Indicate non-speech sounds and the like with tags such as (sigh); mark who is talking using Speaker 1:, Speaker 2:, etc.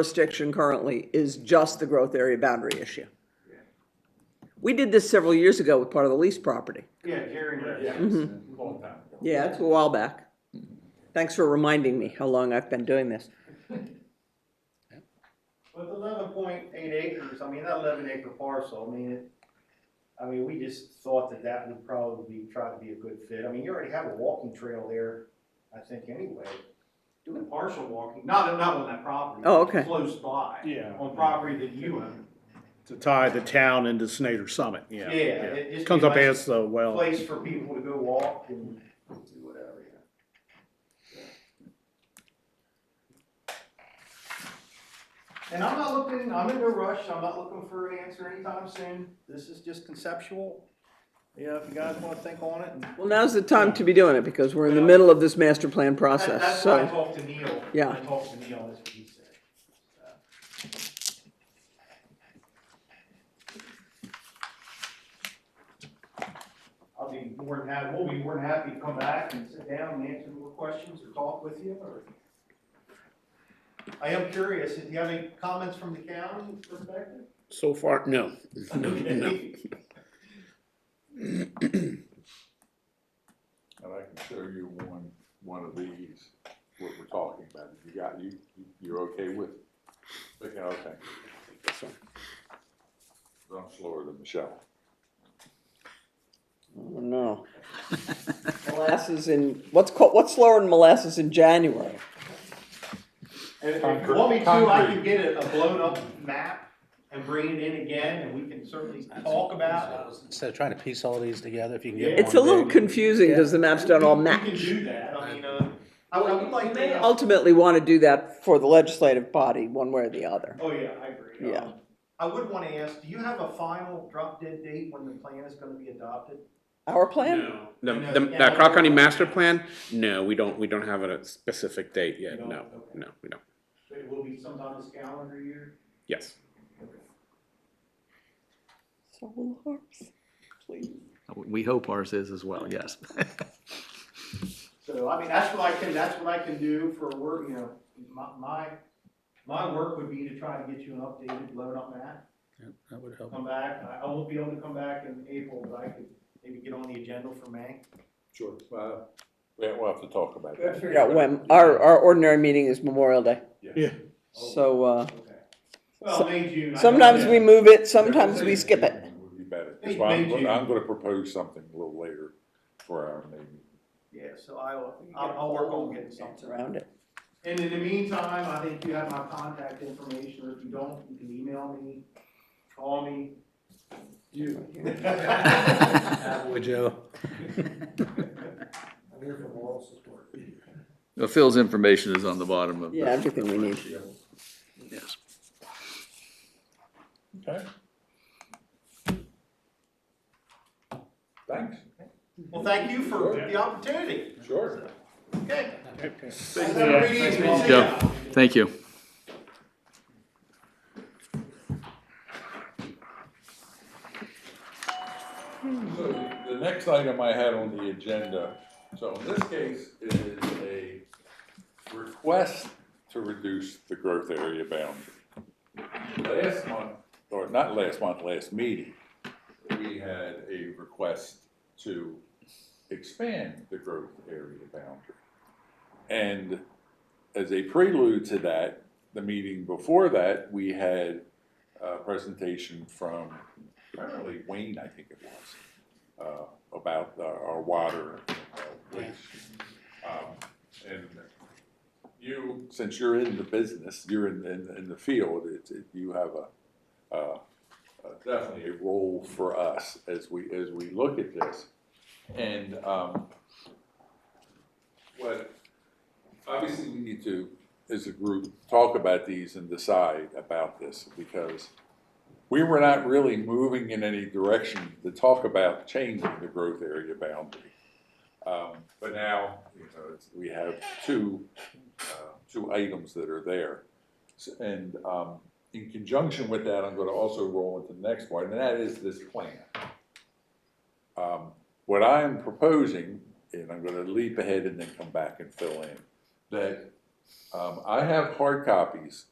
Speaker 1: jurisdiction currently is just the growth area boundary issue. We did this several years ago with part of the lease property.
Speaker 2: Yeah, hearing that,
Speaker 1: Mm-hmm.
Speaker 2: yeah.
Speaker 1: Yeah, it's a while back. Thanks for reminding me how long I've been doing this.
Speaker 2: With eleven point eight acres, I mean, that eleven acre parcel, I mean, it, I mean, we just thought that that would probably try to be a good fit. I mean, you already have a walking trail there, I think, anyway. Doing partial walking, not, not on that property.
Speaker 1: Oh, okay.
Speaker 2: Close by.
Speaker 3: Yeah.
Speaker 2: On property that you own.
Speaker 3: to tie the town into Snyder Summit,
Speaker 2: Yeah,
Speaker 3: yeah.
Speaker 2: it just.
Speaker 3: Comes
Speaker 2: be a
Speaker 3: up
Speaker 2: nice
Speaker 3: as the well.
Speaker 2: Place for people to go walk and do whatever, yeah. And I'm not looking, I'm in no rush, I'm not looking for an answer anytime soon, this is just conceptual. You know, if you guys wanna think on it and.
Speaker 1: Well, now's the time to be doing it because we're in the middle of this master plan
Speaker 2: That-
Speaker 1: process,
Speaker 2: That's why I
Speaker 1: so.
Speaker 2: talked to Neil.
Speaker 1: Yeah.
Speaker 2: I talked to Neil, that's what he said. Uh, I'll be more than happy, we'll be more than happy to come back and sit down and answer more questions or talk with you or. I am curious, do you have any comments from the county perspective?
Speaker 4: So far, no.
Speaker 2: Okay.
Speaker 5: And I can show you one, one of these, what we're talking about, you got, you, you're okay with it? Okay, okay, I'm slower than Michelle.
Speaker 1: Oh, No. Molasses in, what's called, what's slower than molasses in January?
Speaker 2: And if you want me to, I can get a a blown up map and bring it in again and we can certainly talk about it.
Speaker 6: Instead of trying to piece all these together, if you can get
Speaker 2: Yeah.
Speaker 6: one.
Speaker 1: It's a little
Speaker 6: big-
Speaker 1: confusing because the maps don't all
Speaker 2: We- We
Speaker 1: match.
Speaker 2: can do that, I mean, uh, I would, I would like to,
Speaker 1: Ultimately want to do that for the legislative body, one way or the other.
Speaker 2: oh yeah, I agree. Um,
Speaker 1: Yeah.
Speaker 2: I would wanna ask, do you have a final drop dead date when the plan is gonna be adopted?
Speaker 1: Our plan?
Speaker 4: The, the, the Croc County master plan, no, we don't, we don't have a specific date yet, no, no, we don't,
Speaker 2: It will be sometime this calendar year?
Speaker 4: yes.
Speaker 1: Solar harps, please.
Speaker 7: We hope ours is as well, yes.
Speaker 2: So, I mean, that's what I can, that's what I can do for work, you know, my, my, my work would be to try to get you an updated blown up map.
Speaker 7: That would (laughs) help.
Speaker 2: come back, I, I won't be able to come back in April, but I could maybe get on the agenda for May.
Speaker 5: Sure. Well, Uh, yeah, we'll have to talk about
Speaker 1: Gotta
Speaker 5: that.
Speaker 1: figure out when, our, our ordinary meeting is Memorial Day.
Speaker 3: Yeah.
Speaker 1: So, uh,
Speaker 2: Okay. Well, May, June. I know-
Speaker 1: sometimes we move it, sometimes we skip it.
Speaker 5: Would be better, that's why I'm, gonna- I'm gonna propose something a little later for our meeting.
Speaker 2: Yeah, so I'll, I'll, I'll work on getting something.
Speaker 1: Around it.
Speaker 2: And in the meantime, I think you have my contact information, or if you don't, you can email me, call me. (laughs) You.
Speaker 6: Would you?
Speaker 2: I'm here for moral support.
Speaker 7: Phil's information is on the bottom of
Speaker 1: Yeah,
Speaker 7: the
Speaker 1: everything we need.
Speaker 7: Yes.
Speaker 5: Okay. Thanks,
Speaker 2: Well, thank you for the opportunity.
Speaker 5: sure.
Speaker 2: Okay.
Speaker 5: Thank
Speaker 2: Have a great evening. See
Speaker 7: Joe,
Speaker 2: ya.
Speaker 7: thank you.
Speaker 5: So the next item I had on the agenda, so in this case, it is a request to reduce the growth area boundary. Last month, or not last month, last meeting, we had a request to expand the growth area boundary. And as a prelude to that, the meeting before that, we had a presentation from apparently Wayne, I think it was, uh, about uh, our water, uh, which, um, and you, since you're in the business, you're in, in, in the field, it, it, you have a, uh, uh, definitely a role for us as we, as we look at this. And, um, what, obviously we need to, as a group, talk about these and decide about this, because we were not really moving in any direction to talk about changing the growth area boundary. Um, But now, you know, it's- we have two, uh, two items that are there. S- And um, in conjunction with that, I'm gonna also roll into the next one, and that is this plan. Um, What I am proposing, and I'm gonna leap ahead and then come back and fill in, that um, I have hard copies